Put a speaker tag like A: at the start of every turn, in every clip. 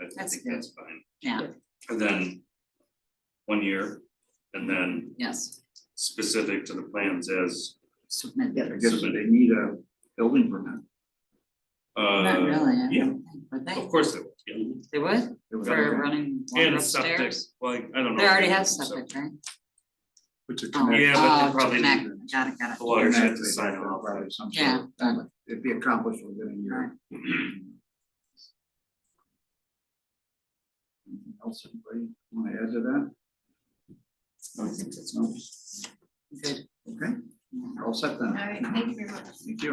A: I- I
B: That's
A: think
B: good.
A: that's fine.
B: Yeah.
A: And then one year, and then
B: yes,
A: specific to the plans as
B: submit.
C: I guess they need a building permit.
A: uh.
B: Not really, I
A: Yeah,
B: don't think, would
A: of
B: they,
A: course it would, yeah.
B: they would,
C: They would have
B: for
C: to
B: running water
A: And septic,
B: upstairs?
A: well, I don't know.
B: They
A: if
B: already
A: do
B: have
A: septic.
B: septic, right?
C: Put your
B: Oh,
C: connection-
A: Yeah, but they
B: oh, to
A: probably-
B: connect. Got it, got
A: The
B: it,
A: lawyers
C: connection
A: have to sign off.
C: by some sort.
B: Yeah.
C: That would- It'd be accomplished within a year. Anything else, anybody want to add to that? I think that's all.
B: good,
C: Okay, we're all set then.
D: All right, thank you very much.
C: Thank you.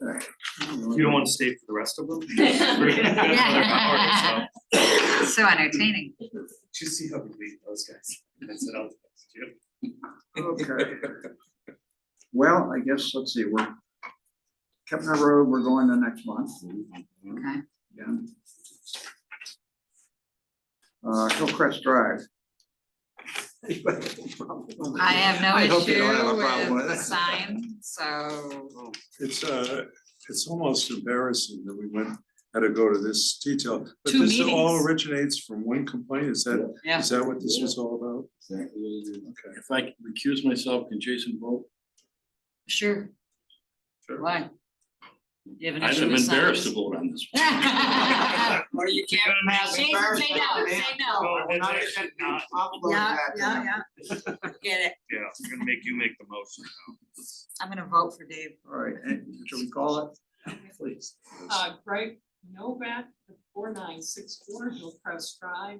C: All right.
A: You don't want to stay for the rest of them?
B: Yeah. so entertaining,
A: Did you see how we beat those guys? That's it, I'll text you.
C: Okay. Well, I guess, let's see, we're, Kepner Road, we're going the next month,
B: okay,
C: yeah. Uh, Hillcrest Drive.
B: I have no
C: I hope
B: issue
C: you don't have a problem
B: with
C: with
B: the
C: it.
B: sign, so,
A: Oh.
E: It's uh, it's almost embarrassing that we went, had to go to this detail, but
B: Two
E: this all
B: meetings.
E: originates from one complaint, is that,
B: yeah,
E: is that what this was all about? Okay.
F: If I could recuse myself, can Jason vote?
B: sure.
A: Sure.
B: Why? You have an
F: i
B: issue
F: am
B: with signs?
F: embarrassed to vote on this.
B: Or you can't pass. Jason, say no, say no.
A: No, it's actually not,
B: Yeah, yeah, yeah. Get it,
A: yeah, I'm gonna make you make the motion now.
B: I'm gonna vote for Dave.
C: All right, and should we call it? Please.
G: Uh, Greg Novak, four nine six four Hillcrest Drive.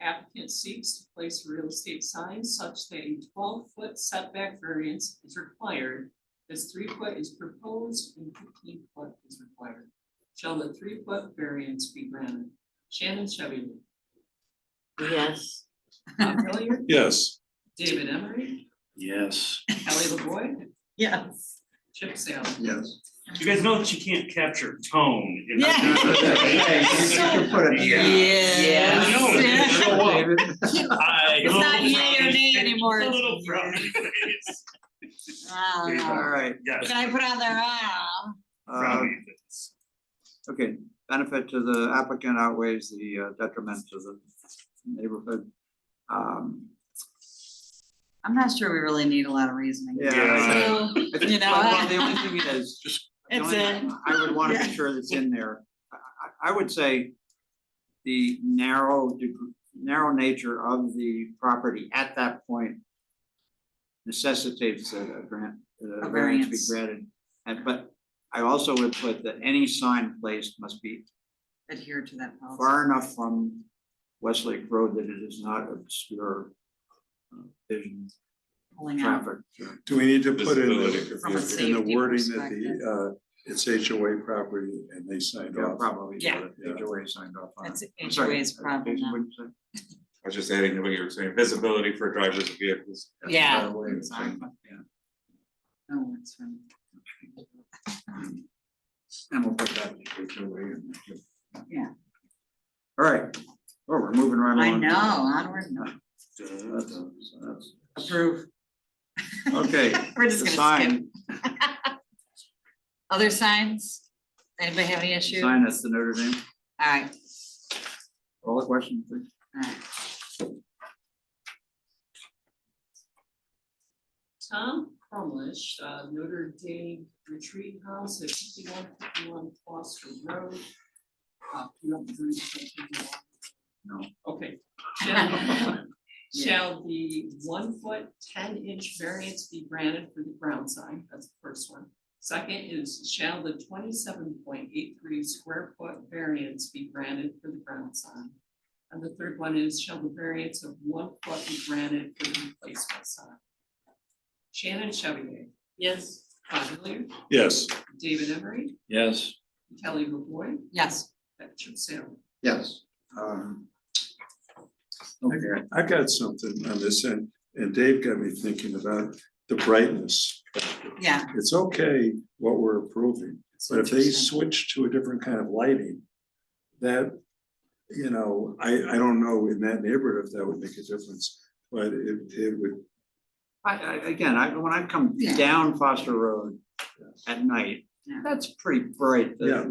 G: Applicant seeks to place real estate signs such that a twelve foot setback variance is required. As three foot is proposed and fifteen foot is required. Shall the three foot variance be granted? Shannon Chevy,
D: Yes.
G: Bob Hilliard,
E: Yes,
G: David Emery,
F: Yes.
G: Ellie LaVoy,
B: Yes.
G: Chip Salem.
C: Yes.
A: You guys know that you can't capture tone. in-
B: Yeah.
C: You can put it-
B: Yes.
A: Yeah. No,
B: Yeah.
A: it's Show up.
C: David.
A: I-
B: It's not yay or nay anymore,
A: A
B: it's
A: little
B: yay.
A: frowny face.
C: All
B: Wow.
C: right,
A: Yes.
B: Can I put on there, wow?
C: uh,
H: Um,
A: frowny face.
C: okay, benefit to the applicant outweighs the uh, detriment to the neighborhood. Um,
B: I'm not sure we really need a lot of reasoning.
C: Yeah.
A: Yeah.
B: So,
C: I think-
B: You know.
C: well, The only thing is, just. the
B: It's
C: only thing I would wanna be
B: Yeah.
C: sure that's in there. I, I, I would say the narrow, deg- narrow nature of the property at that point necessitates that a grant, that
B: A
C: a variance be
B: variance.
C: granted. And, but I also would put that any sign placed must be
B: Adhere to that policy.
C: far enough from Westlake Road that it is not obscure uh, vision,
B: Pulling out.
C: traffic.
E: do we need to put in the,
F: Visibility.
B: From a
E: in the
B: safety
E: wording that
B: perspective.
E: the uh, it's HOA property and they signed
C: Yeah,
E: off?
C: probably.
B: Yeah.
C: HOA signed off on it.
B: That's
C: I'm sorry,
B: HOA's
C: uh,
B: problem now.
C: Jason, what'd you say?
H: I was just adding to what you were saying, visibility for drivers of vehicles.
B: Yeah.
C: Right away, it's like,
B: Exactly. No, it's from.
C: And we'll put that in the HOA and that.
B: Yeah.
C: All right, well, we're moving right
B: I
C: along.
B: know, onward, and upward.
C: That's- that's-
B: approve.
C: Okay.
B: We're just
C: the
B: gonna skip.
C: sign-
B: Other signs? Anybody have any
C: the
B: issue? All
C: Sign at the Notre Dame,
B: right,
C: all the questions, please.
B: all right.
G: Tom Crumlish, uh, Notre Dame Retreat House at fifty-one fifty-one Foster Road. Uh, you don't agree with that, do you?
C: No.
G: Okay. Shall- Shall the one foot, ten inch variance be granted for the ground sign? That's the first one. Second is, shall the twenty-seven point eight three square foot variance be granted for the ground sign? And the third one is, shall the variance of one foot be granted for the replacement sign? Shannon Chevy. Yes. Bob Hilliard,
E: Yes,
G: David Emery,
F: Yes.
G: Kelly LaVoy,
B: Yes,
G: and Chip Salem.
C: Yes. um, Okay,
E: I got something on this end, and Dave got me thinking about the brightness.
B: yeah.
E: It's okay what we're approving, But if they
B: Interesting.
E: switch to a different kind of lighting, that, you know, I, I don't know in that neighborhood if that would make a difference, but it, it would,
C: I, I, again, I, when I come
B: Yeah.
C: down Foster Road at night,
B: Yeah.
C: that's pretty bright. The-
E: Yeah.